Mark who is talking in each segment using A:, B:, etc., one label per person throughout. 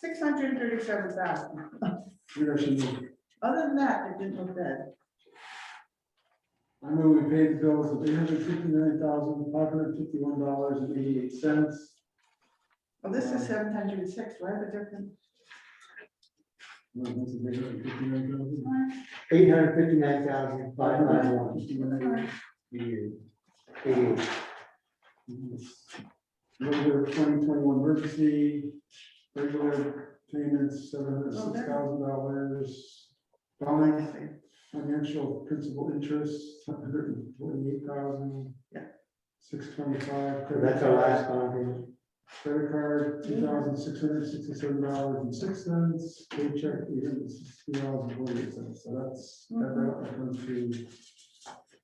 A: Six hundred and thirty-seven thousand.
B: Where she moved.
A: Other than that, it didn't look bad.
B: I move we pay the bills of eight hundred fifty-nine thousand, five hundred fifty-one dollars and eighty-eight cents.
A: Well, this is seven hundred and six, why the difference?
C: Eight hundred fifty-nine thousand,
B: Five
C: five
B: nine
C: ninety-one.
B: one.
C: Eighty-eight.
B: Regular twenty twenty-one emergency, regular payments, seven hundred six thousand dollars.
C: Oh,
B: Bond, financial principal interest, seven hundred and forty-eight thousand.
A: Yeah.
B: Six twenty-five.
C: That's our last bond payment.
B: Credit card, two thousand six hundred sixty-seven dollars and six cents, paycheck, eight hundred sixty dollars and forty-eight cents, so that's, that brought up from to.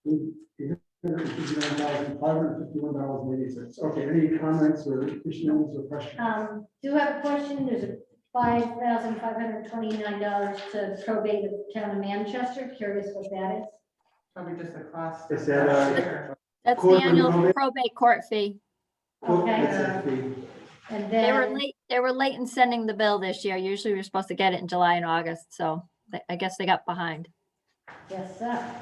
B: Eight hundred fifty-nine thousand, five hundred fifty-one dollars and eighty cents, okay, any comments or issues or questions?
D: Um, do have a question, there's a five thousand five hundred twenty-nine dollars to probate of town of Manchester, curious what that is?
A: Probably just the cost.
C: Is that, uh,
A: Sure.
E: That's the
C: Court
E: annual
C: removal.
E: probate court fee.
D: Uh, Okay,
C: That's a fee.
D: and
E: They were
D: then,
E: late, they were late in sending the bill this year. Usually we're supposed to get it in July and August, so they- I guess they got behind.
D: yes, sir.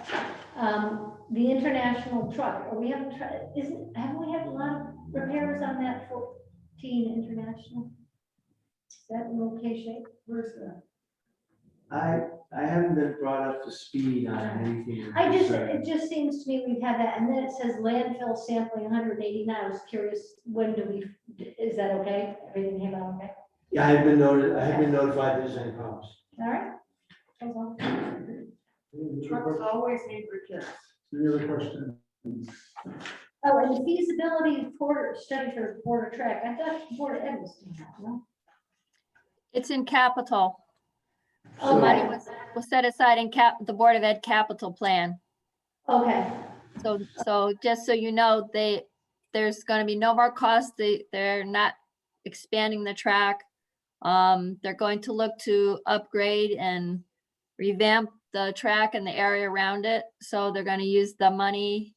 D: Um, the international truck, are we having, tr- isn't, haven't we had a lot of repairs on that fourteen international? Is that in okay shape?
A: Where's that?
C: I, I haven't been brought up to speed on anything.
D: I just, it just seems to me we've had that, and then it says landfill sampling hundred eighty-nine, I was curious, when do we, is that okay? Everything came out okay?
C: Yeah, I have been noted, I have been notified there's any problems.
D: All right? That's all.
B: Any other
A: Trucks
B: questions?
A: always need repairs.
B: Any other questions?
D: Oh, and the feasibility for study for border track, I thought border ed was doing that, no?
E: It's in capital.
D: Oh,
E: Money
D: right.
E: was, was set aside in cap, the Board of Ed capital plan.
D: Okay,
E: So, so just so you know, they, there's gonna be no more cost. They, they're not expanding the track. Um, they're going to look to upgrade and revamp the track and the area around it. So they're gonna use the money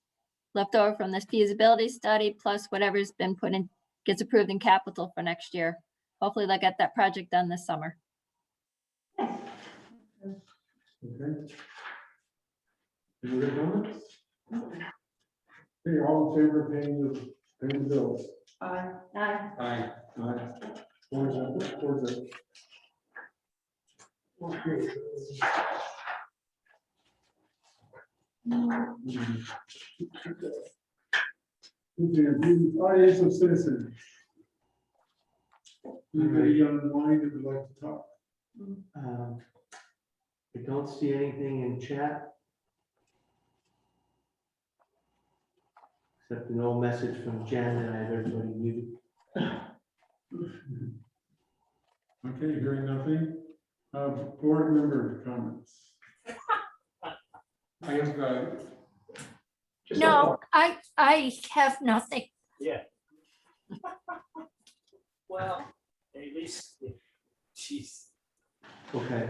E: left over from this feasibility study, plus whatever's been put in, gets approved in capital for next year. Hopefully they'll get that project done this summer.
B: Okay. Any other comments? Okay, all in favor of paying the, paying the bills?
A: Uh,
D: I,
C: Aye.
B: Aye. Four zero, four zero. Okay. Okay, the Audience of citizens. Anybody online that would like to talk?
C: Um, I don't see anything in chat. Except an old message from Jen that I have everybody muted.
B: Okay, hearing nothing. Uh, board member comments.
F: I guess, uh, just a
G: No,
F: thought.
G: I, I have nothing.
H: Well, at least, she's.
C: Okay,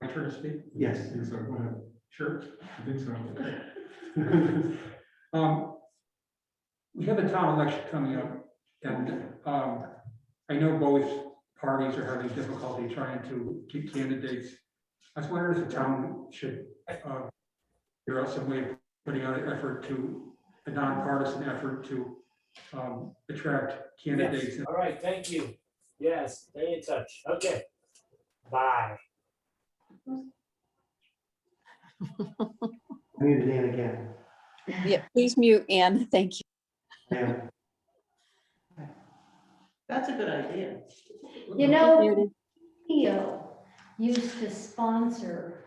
F: My turn to speak?
C: yes.
B: I think so, go ahead.
F: Sure.
B: I think so.
F: Um, We have a town election coming up, and um, I know both parties are having difficulty trying to keep candidates. I was wondering if the town should uh, figure out some way of putting out an effort to, a nonpartisan effort to um, attract candidates.
H: All right, thank you. Yes, stay in touch. Okay. Bye.
C: Muted Ann again.
I: Yeah, please mute Anne. Thank you.
C: Yeah.
A: that's a good idea.
D: you know, Theo used to sponsor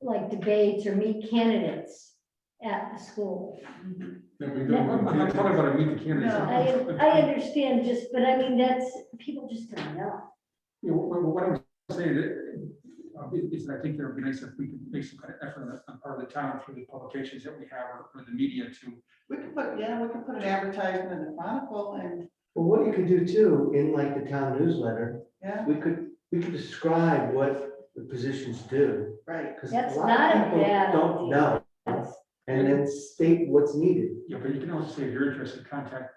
D: like debates or meet candidates at the school.
B: Then we
F: I'm
B: go.
F: not talking about meeting candidates.
A: No,
D: I, I understand just, but I mean, that's, people just don't know.
F: You know, what, what I'm saying uh, is, that I think it would be nice if we could make some kind of effort on the- on part of the town through the publications that we have or, or the media to.
A: We could put, yeah, we could put an advertisement in the Chronicle and,
C: Well, what you could do too, in like the town newsletter,
A: yeah,
C: we could, we could describe what the positions do.
A: right.
C: Because
D: That's
C: a lot
D: not a
C: of people
D: bad
C: don't
D: idea.
C: know,
D: That's-
C: and then state what's needed.
F: Yeah, but you can also say if you're interested, contact